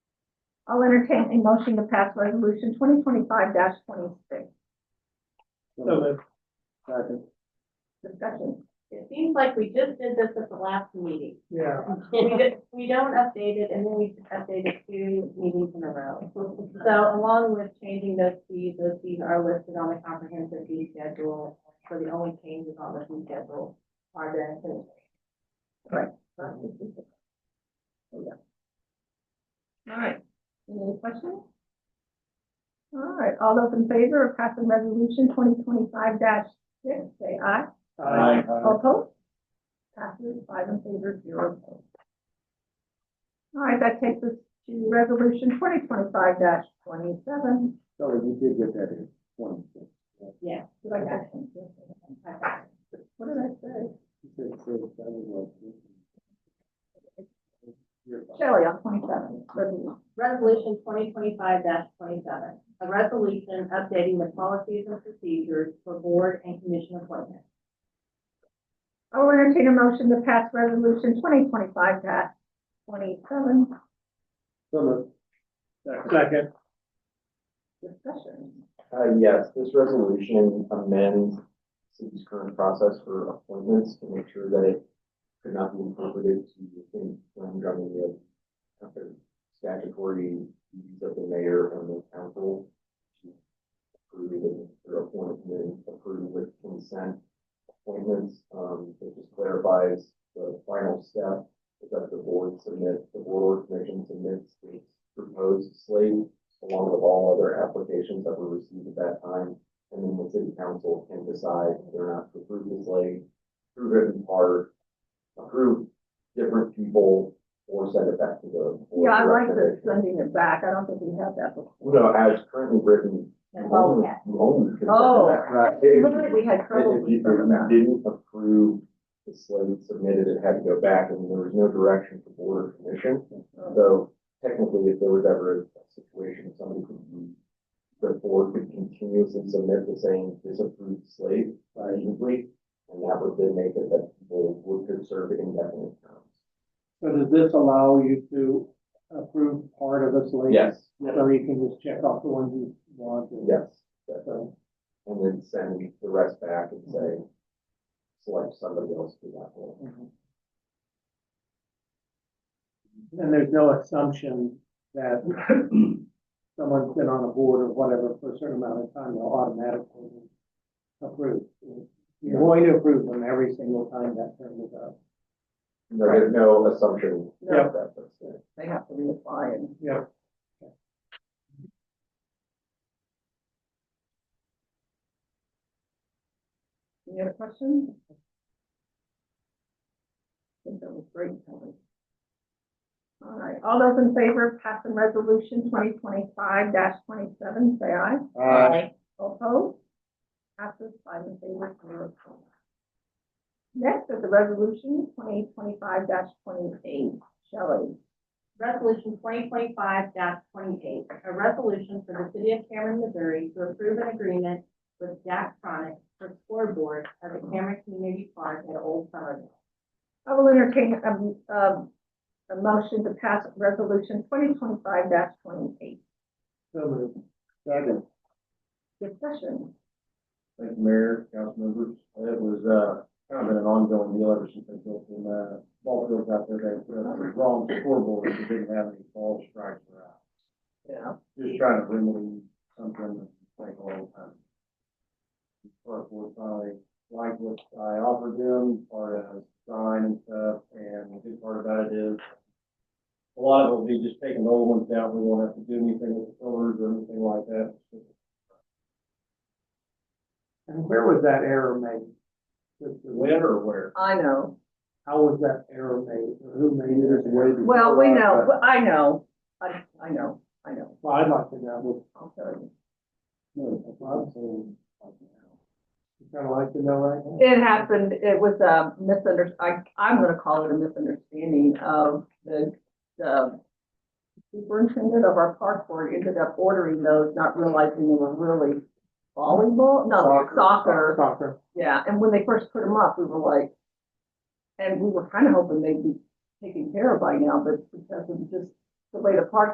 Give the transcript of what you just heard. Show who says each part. Speaker 1: I'll entertain a motion to pass resolution twenty twenty-five twenty-six.
Speaker 2: So moved.
Speaker 3: Second.
Speaker 1: Discussion.
Speaker 4: It seems like we just did this at the last meeting.
Speaker 2: Yeah.
Speaker 4: We don't- we don't update it and then we update it two meetings in a row. So along with changing those fees, those fees are listed on the comprehensive fee schedule. So the only changes on the fee schedule are the.
Speaker 1: Right. All right, any questions? All right, all those in favor of passing resolution twenty twenty-five six, say aye.
Speaker 2: Aye.
Speaker 1: All Opposed? Passes five in favor, zero opposed. All right, that takes us to resolution twenty twenty-five twenty-seven.
Speaker 3: Sorry, we did get that in, one.
Speaker 4: Yeah.
Speaker 1: Did I get that? What did I say?
Speaker 3: You said six, that was like-
Speaker 1: Shelley, on twenty-seven, resolution.
Speaker 4: Resolution twenty twenty-five twenty-seven, a resolution updating the policies and procedures for board and commission appointments.
Speaker 1: I'll entertain a motion to pass resolution twenty twenty-five twenty-seven.
Speaker 3: So moved.
Speaker 2: Second.
Speaker 1: Discussion.
Speaker 5: Uh, yes, this resolution amends city's current process for appointments to make sure that it could not be interpreted to within when governing the kind of statutory duties of the mayor and the council to approve and- or appoint and then approve with consent appointments. Um, it just clarifies the final step is that the board submit, the board or commission submits its proposed slate along with all other applications that were received at that time. And then the city council can decide whether or not to approve this late, approve it in part, approve different people, or send it back to the. board
Speaker 1: Yeah, I
Speaker 5: for
Speaker 1: like the
Speaker 5: recommendation.
Speaker 1: sending it back. I don't think we have that before.
Speaker 5: No, as currently written.
Speaker 4: That's all we
Speaker 5: you
Speaker 4: have.
Speaker 5: only can-
Speaker 1: Oh.
Speaker 5: Right.
Speaker 1: Literally, we had trouble
Speaker 5: If you,
Speaker 1: with
Speaker 5: if you
Speaker 1: that.
Speaker 5: didn't approve the slate submitted, it had to go back, and there was no direction for board or commission. So technically, if there was ever a situation, somebody could, be- the board could continuously submit the same disapproved slate uh, easily, and that would then make it that people would could serve indefinite terms.
Speaker 2: So does this allow you to approve part of this later?
Speaker 5: Yes,
Speaker 2: So you can just check off the ones you want? and-
Speaker 5: yes, definitely.
Speaker 2: So,
Speaker 5: and then send the rest back and say, select somebody else for that role.
Speaker 2: And there's no assumption that someone's been on a board or whatever for a certain amount of time, they'll automatically approve. You're going to approve them every single time that term is up.
Speaker 5: No, There's no assumption.
Speaker 1: No.
Speaker 5: that that's it.
Speaker 1: They have to reapply and.
Speaker 2: Yeah.
Speaker 1: Any other questions? I think that was great, Kelly. All right, all those in favor of passing resolution twenty twenty-five twenty-seven, say aye.
Speaker 4: Uh,
Speaker 1: All Opposed? Passes five in favor, zero opposed. Next is the resolution twenty twenty-five twenty-eight. Shelley,
Speaker 4: Resolution twenty twenty-five twenty-eight, a resolution for the city of Cameron, Missouri to approve an agreement with Jack Chronic for scoreboard at the Cameron Community Park at Old Summerville.
Speaker 1: I will entertain a, a, a motion to pass resolution twenty twenty-five twenty-eight.
Speaker 2: So moved.
Speaker 3: Second.
Speaker 1: Discussion.
Speaker 3: Thank you, Mayor, council members. It was, uh, kind of been an ongoing deal ever since they built them, uh, ball fields out there. They put up the wrong scoreboard because they didn't have any ball strikes or out.
Speaker 1: Yeah.
Speaker 3: Just trying to remedy something that's like all the time. Park board finally liked what I offered them, part of sign and stuff, and the good part about it is a lot of it will be just taking the old ones down. We won't have to do anything with the colors or anything like that.
Speaker 2: And where was that error made? Just the-
Speaker 3: When or where?
Speaker 1: I know.
Speaker 2: How was that error made? Or Who made it?
Speaker 3: Where-
Speaker 1: Well, we know, Well, uh, I know, I, I know, I know,
Speaker 2: Well, I'd like to know.
Speaker 1: I'll tell you.
Speaker 2: Kind of like to know right now.
Speaker 1: It happened, it was a misunder, I, I'm gonna call it a misunderstanding of the, the superintendent of our park board ended up ordering those, not realizing they were really volleyball, no, soccer.
Speaker 2: Soccer.
Speaker 1: Yeah, and when they first put them up, we were like, and we were kind of hoping they'd be taken care of by now, but because of just the way the park